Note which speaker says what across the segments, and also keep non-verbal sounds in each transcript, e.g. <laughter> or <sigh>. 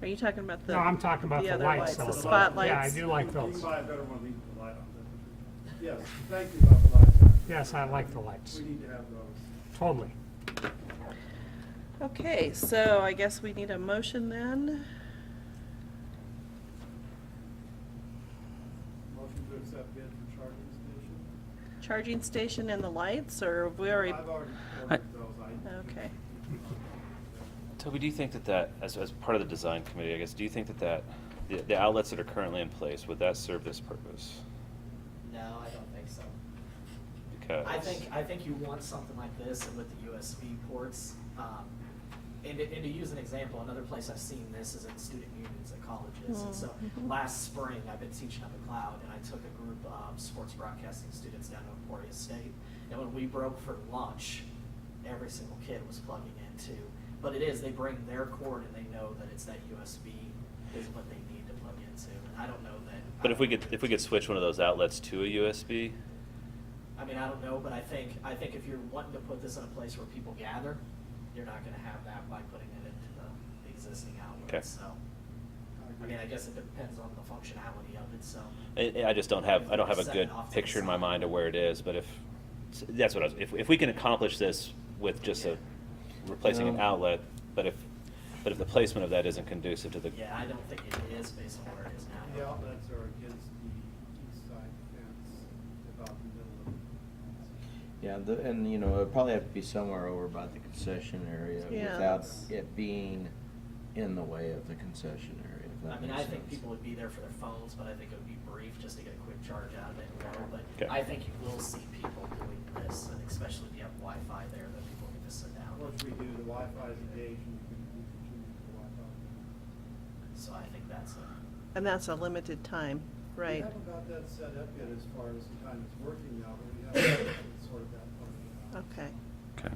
Speaker 1: Are you talking about the?
Speaker 2: No, I'm talking about
Speaker 1: the
Speaker 2: the
Speaker 1: other
Speaker 2: lights.
Speaker 1: The
Speaker 2: though. Yeah, I
Speaker 1: spotlights.
Speaker 2: do like
Speaker 3: You
Speaker 2: those.
Speaker 3: can buy a better one, leave the light on. Yes, thank you about the lights.
Speaker 2: Yes, I like the lights,
Speaker 3: We need to have those.
Speaker 2: totally.
Speaker 1: Okay, so I guess we need a motion then.
Speaker 3: Motion to accept bid for charging station.
Speaker 1: Charging station and the lights, or have we already?
Speaker 3: I've already ordered those. I-
Speaker 1: <laughs> Okay.
Speaker 4: Toby, do you think that that, as, as part of the design committee, I guess, do you think that that, the, the outlets that are currently in place, would that serve this purpose?
Speaker 5: No, I don't think so.
Speaker 4: Because.
Speaker 5: I think, I think you want something like this and with the USB ports. um, And to, and to use an example, another place I've seen this is in student unions at colleges. And so
Speaker 1: Mhm.
Speaker 5: last spring, I've been teaching up at Cloud and I took a group of sports broadcasting students down to Emporia State. And when we broke for lunch, every single kid was plugging into, but it is, they bring their cord and they know that it's that USB is what they need to plug into. And I don't know that. I
Speaker 4: But if we
Speaker 5: don't
Speaker 4: could,
Speaker 5: know that
Speaker 4: if we could
Speaker 5: teachers-
Speaker 4: switch one of those outlets to a USB,
Speaker 5: I mean, I don't know, but I think, I think if you're wanting to put this in a place where people gather, you're not gonna have that by putting it into the- the existing
Speaker 4: Okay.
Speaker 5: outlet, so. I
Speaker 3: agree.
Speaker 5: mean, I guess it depends on the functionality of it, so.
Speaker 4: I, I just don't have, I don't have a
Speaker 5: Set it
Speaker 4: good
Speaker 5: off to the
Speaker 4: picture in my
Speaker 5: side.
Speaker 4: mind of where it is, but if, that's what I was, if, if we can accomplish this with just a, replacing an
Speaker 5: Um,
Speaker 6: Yeah.
Speaker 4: outlet, but if, but if the placement of that isn't conducive to the.
Speaker 5: Yeah, I don't think it is based on where it is now.
Speaker 3: The outlets are against the east side fence, about the middle of it.
Speaker 6: Yeah, the, and you know, it'd probably have to be somewhere over by the concession area
Speaker 1: Yeah,
Speaker 6: without
Speaker 1: that's-
Speaker 6: it being in the way of the concession area, if
Speaker 5: I
Speaker 6: that
Speaker 5: mean,
Speaker 6: makes
Speaker 5: I
Speaker 6: sense.
Speaker 5: think people would be there for their phones, but I think it would be brief just to get a quick charge out of it, you know,
Speaker 4: Okay.
Speaker 5: but I think you will see people doing this, and especially if you have Wi-Fi there, that people can just sit down.
Speaker 3: Once we do, the Wi-Fi is engaged and we can we can tune the Wi-Fi.
Speaker 5: So I think that's a,
Speaker 1: And that's a limited time,
Speaker 3: We
Speaker 1: right?
Speaker 3: haven't got that set up yet as far as the time it's working now, but we have sort of that part of it out.
Speaker 1: Okay.
Speaker 4: Okay.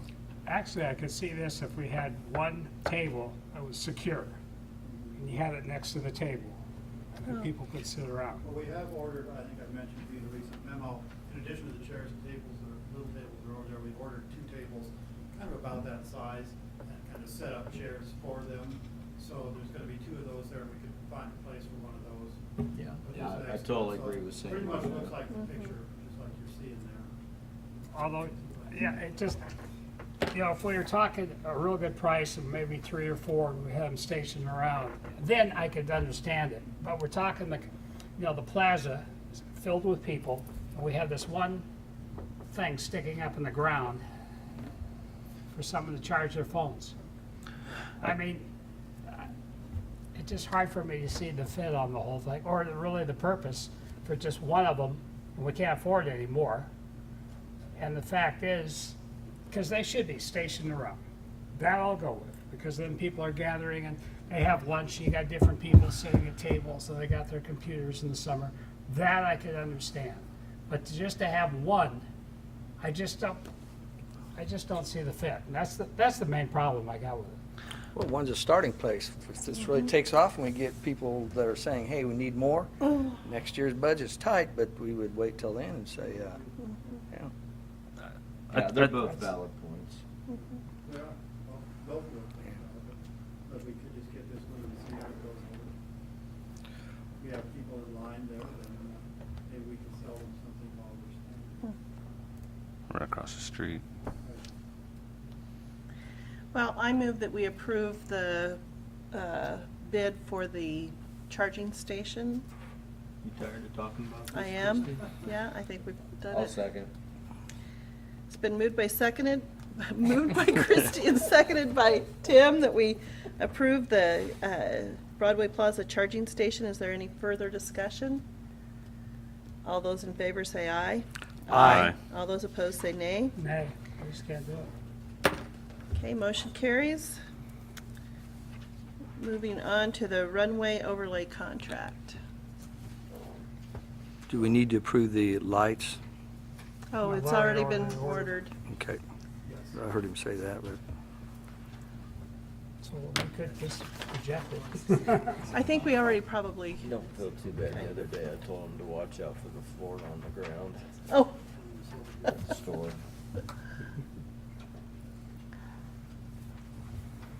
Speaker 2: Actually, I could see this if we had one table that was secure, and you had it next to the table, and then
Speaker 1: Oh.
Speaker 2: people could sit around.
Speaker 3: Well, we have ordered, I think I mentioned to you in a recent memo, in addition to the chairs and tables, that are little tables that are over there, we've ordered two tables kind of about that size and kind of set up chairs for them. So there's gonna be two of those there, we could find a place for one of those.
Speaker 6: Yeah,
Speaker 3: But there's
Speaker 6: yeah,
Speaker 3: an
Speaker 6: I- I
Speaker 3: extra one,
Speaker 6: totally
Speaker 3: so
Speaker 6: agree
Speaker 3: it
Speaker 6: with saying.
Speaker 3: Pretty much
Speaker 6: that.
Speaker 3: looks like the
Speaker 1: Mhm.
Speaker 3: picture, just like you're seeing there.
Speaker 2: Although, yeah, it just, you know, if we were talking a real good price of maybe three or four, and we had them stationed around, then I could understand it. But we're talking the, you know, the plaza is filled with people, and we have this one thing sticking up in the ground for someone to charge their phones. I mean, I- it's just hard for me to see the fit on the whole thing, or the- really the purpose for just one of them, and we can't afford any more. And the fact is, because they should be stationed around. That I'll go with, because then people are gathering and they have lunch, you got different people sitting at tables, so they got their computers in the summer. That I could understand. But to- just to have one, I just don't, I just don't see the fit. And that's the, that's the main problem I got with it.
Speaker 7: Well, one's a starting place. If this really takes off and we get people that are saying, hey, we need more, next year's budget's tight, but we would wait till then and say, uh, yeah.
Speaker 6: Yeah, they're both valid points.
Speaker 3: Yeah, well, both of them, uh, but we could just get this one and see how it goes over. We have people in line there, then uh, maybe we can sell them something while we're standing.
Speaker 4: Right across the street.
Speaker 1: Well, I move that we approve the uh, bid for the charging station.
Speaker 6: You tired of talking about this?
Speaker 1: I am,
Speaker 6: Christie?
Speaker 1: yeah, I think we've done it.
Speaker 6: I'll second.
Speaker 1: It's been moved by seconded, <laughs> moved by Christie and seconded by Tim that we approve the uh, Broadway Plaza charging station. Is there any further discussion? All those in favor say aye.
Speaker 4: Aye. Aye.
Speaker 1: All those opposed say nay.
Speaker 2: Nay, we just can't do it.
Speaker 1: Okay, motion carries. Moving on to the runway overlay contract.
Speaker 7: Do we need to approve the lights?
Speaker 1: Oh,
Speaker 2: We've
Speaker 1: it's already
Speaker 2: already
Speaker 1: been
Speaker 2: ordered.
Speaker 1: ordered.
Speaker 7: Okay,
Speaker 3: Yes.
Speaker 7: I heard him say that, but
Speaker 2: So we could just reject it. <laughs>
Speaker 1: I think we already probably,
Speaker 6: You don't feel too bad. The other day I told him to watch out for the floor on the ground
Speaker 1: oh,
Speaker 6: at the store.